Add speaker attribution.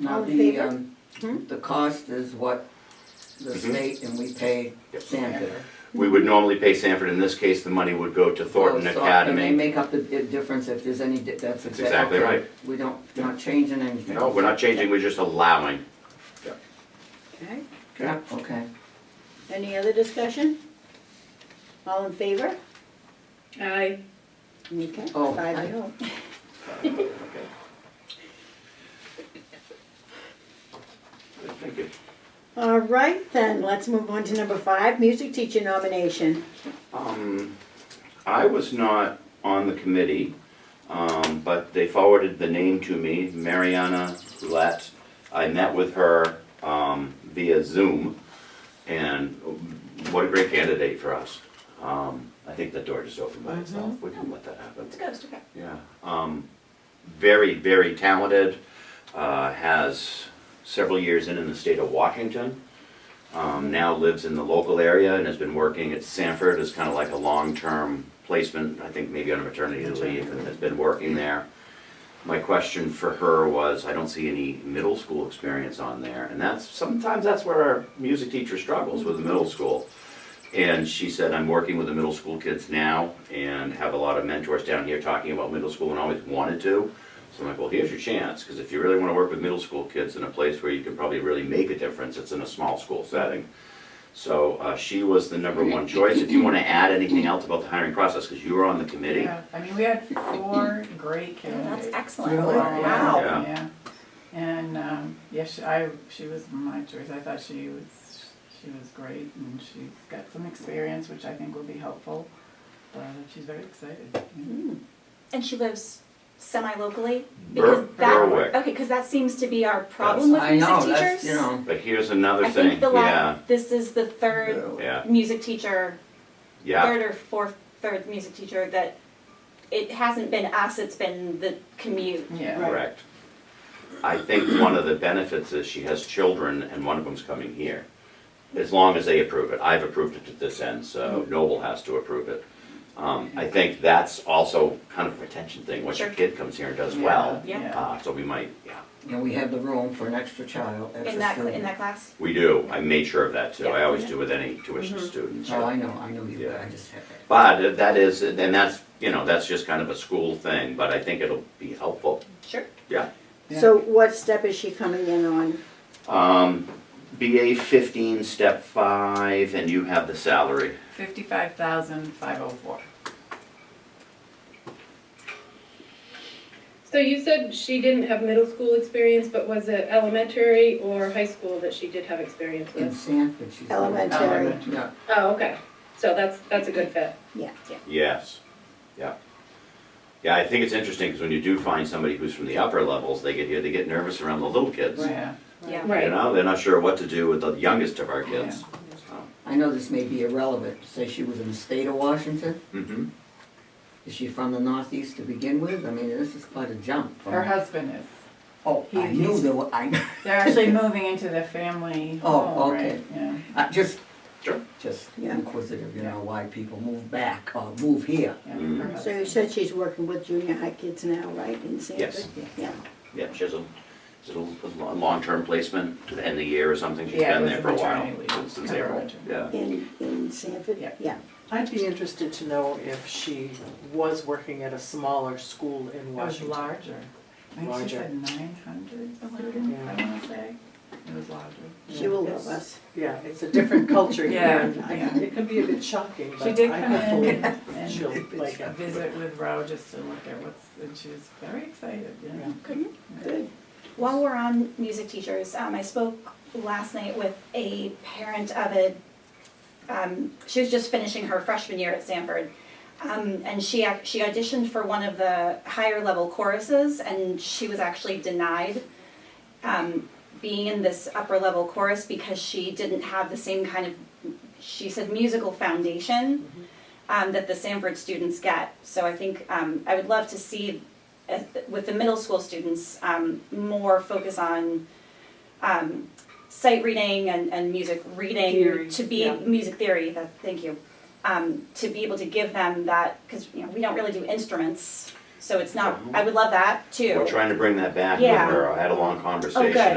Speaker 1: Now
Speaker 2: All in
Speaker 1: the,
Speaker 2: favor?
Speaker 1: um,
Speaker 2: Hmm?
Speaker 1: the cost is what the
Speaker 3: Mhm.
Speaker 1: state and we pay
Speaker 3: Yep.
Speaker 1: Sanford.
Speaker 3: We would normally pay Sanford, in this case, the money would go to Oh, Thornton
Speaker 1: So, so- And they
Speaker 3: Academy.
Speaker 1: make up the di- difference if there's any, di- that's exactly.
Speaker 3: exactly right.
Speaker 1: We don't, we're not changing anything.
Speaker 3: No, we're not changing, we're just allowing.
Speaker 2: Okay,
Speaker 1: Yeah, okay.
Speaker 2: any other discussion? All in favor?
Speaker 4: Aye.
Speaker 2: Okay,
Speaker 1: Oh,
Speaker 2: five
Speaker 1: I-
Speaker 2: oh.
Speaker 3: Thank you.
Speaker 2: All right, then, let's move on to number five, music teacher nomination.
Speaker 3: Um, I was not on the committee, um, but they forwarded the name to me, Mariana Roulette. I met with her, um, via Zoom, and what a great candidate for us. Um, I think that door just opened by itself, we can let that happen.
Speaker 4: Mm-hmm. It's good, it's okay.
Speaker 3: Yeah, um, very, very talented, uh, has several years in in the state of Washington. Um, now lives in the local area and has been working at Sanford as kind of like a long-term placement, I think maybe on a maternity leave, and has been working there. My question for her was, I don't see any middle school experience on there, and that's, sometimes that's where our music teacher struggles with the middle school. And she said, I'm working with the middle school kids now and have a lot of mentors down here talking about middle school and always wanted to. So I'm like, well, here's your chance, because if you really want to work with middle school kids in a place where you can probably really make a difference, it's in a small school setting. So uh, she was the number one choice. If you want to add anything else about the hiring process, because you were on the committee.
Speaker 5: Yeah, I mean, we had four great candidates.
Speaker 4: That's excellent.
Speaker 5: Four, yeah,
Speaker 4: Wow.
Speaker 3: Yeah.
Speaker 5: Yeah, and, um, yes, I, she was my choice, I thought she was, she was great, and she's got some experience, which I think will be helpful, but she's very excited. yeah.
Speaker 4: And she lives semi-locally?
Speaker 3: Ber-
Speaker 4: Because that,
Speaker 3: Berwick.
Speaker 4: okay, because that seems to be our problem with
Speaker 1: I
Speaker 4: music
Speaker 1: know,
Speaker 4: teachers.
Speaker 1: that's, you know,
Speaker 3: But here's another
Speaker 4: I
Speaker 3: thing.
Speaker 4: think the
Speaker 3: Yeah,
Speaker 4: last, this is the third
Speaker 3: yeah,
Speaker 4: music teacher,
Speaker 3: yeah.
Speaker 4: third or fourth, third music teacher that it hasn't been us, it's been the commute.
Speaker 5: Yeah,
Speaker 3: Correct. I think one of the benefits is she has children and one of them's coming here. As long as they approve it. I've approved it to this end,
Speaker 4: Mm-hmm.
Speaker 3: so Noble has to approve it. Um, I think that's also kind of a retention thing. Once your
Speaker 4: Sure.
Speaker 3: kid comes here and does well,
Speaker 4: Yeah.
Speaker 5: yeah.
Speaker 3: uh, so we might, yeah.
Speaker 1: and we have the room for an extra child, extra
Speaker 4: In that, cl- in
Speaker 1: student.
Speaker 4: that class?
Speaker 3: We do. I made sure of that too. I
Speaker 4: Yeah. Mm-hmm.
Speaker 3: always do with any tuition students.
Speaker 1: Oh, I know, I know you, but
Speaker 3: Yeah.
Speaker 1: I just have it.
Speaker 3: But that is, and that's, you know, that's just kind of a school thing, but I think it'll be helpful.
Speaker 4: Sure.
Speaker 3: Yeah.
Speaker 5: Yeah.
Speaker 2: So what step is she coming in on?
Speaker 3: Um, BA fifteen, step five, and you have the salary.
Speaker 5: fifty-five thousand, five oh four.
Speaker 6: So you said she didn't have middle school experience, but was it elementary or high school that she did have experience
Speaker 1: In
Speaker 6: with?
Speaker 1: Sanford, she's.
Speaker 2: Elementary.
Speaker 1: Elementary, Yeah,
Speaker 6: Oh, okay. So that's, that's a good fit.
Speaker 3: Yes, yeah. Yeah, I think it's interesting, because when you do find somebody who's from the upper levels, they get here, they get nervous around the little kids.
Speaker 5: Yeah,
Speaker 4: Yeah.
Speaker 3: You
Speaker 6: Right.
Speaker 3: know, they're not sure what to do with the youngest of our kids.
Speaker 1: I know this may be irrelevant, say she was in the state of Washington,
Speaker 3: Mm-hmm,
Speaker 1: is she from the northeast to begin with? I mean, this is quite a jump. from-
Speaker 5: her husband is.
Speaker 1: Oh, I
Speaker 5: he-
Speaker 1: knew
Speaker 5: he's-
Speaker 1: there were, I,
Speaker 5: They're actually moving into the family
Speaker 1: Oh,
Speaker 5: home,
Speaker 1: okay.
Speaker 5: right? Yeah.
Speaker 1: I Uh, just,
Speaker 3: Sure.
Speaker 1: just
Speaker 2: Yeah.
Speaker 1: inquisitive, you know, why people move back or move here.
Speaker 5: yeah,
Speaker 3: Mm.
Speaker 5: her
Speaker 2: So you
Speaker 5: husband.
Speaker 2: said she's working with junior high kids now, right, in Sanford?
Speaker 3: Yes.
Speaker 2: Yeah,
Speaker 3: yeah, she has a, it's a little- a lo- long-term placement to the end of the year or something, she's
Speaker 5: Yeah, it
Speaker 3: been
Speaker 5: was
Speaker 3: there
Speaker 5: a
Speaker 3: for a while,
Speaker 5: maternity leave.
Speaker 3: since
Speaker 5: Yeah.
Speaker 3: April, yeah.
Speaker 2: in, in Sanford,
Speaker 5: Yeah.
Speaker 2: yeah.
Speaker 7: I'd be interested to know if she was working at a smaller school in
Speaker 5: It was
Speaker 7: Washington.
Speaker 5: larger. I think she
Speaker 7: Larger.
Speaker 5: said nine hundred students, I wanna say. It was larger.
Speaker 2: She will love us.
Speaker 7: Yeah, it's a different culture here,
Speaker 5: Yeah,
Speaker 7: and I-
Speaker 5: yeah.
Speaker 7: it could be a bit shocking,
Speaker 5: She
Speaker 7: but
Speaker 5: did
Speaker 7: I
Speaker 5: come
Speaker 7: hopefully
Speaker 5: in
Speaker 7: she'll
Speaker 5: and
Speaker 7: like it.
Speaker 5: visit with Row just to look at what's, and she was very excited, yeah.
Speaker 2: Good.
Speaker 4: Mm-hmm. While we're on music teachers, um, I spoke last night with a parent of a. Um, she was just finishing her freshman year at Stanford, um, and she ac- she auditioned for one of the higher level choruses, and she was actually denied um, being in this upper level chorus because she didn't have the same kind of she said musical foundation
Speaker 7: Mm-hmm.
Speaker 4: um, that the Sanford students get. So I think um, I would love to see uh, with the middle school students um, more focus on um, sight reading and, and music reading
Speaker 7: Theory,
Speaker 4: to be
Speaker 7: yeah.
Speaker 4: music theory. That, thank you. Um, to be able to give them that because you know we don't really do instruments, So it's not, I would love that too.
Speaker 3: We're trying to bring that back with
Speaker 4: Yeah.
Speaker 5: Oh,
Speaker 3: her. I had a long conversation
Speaker 4: good,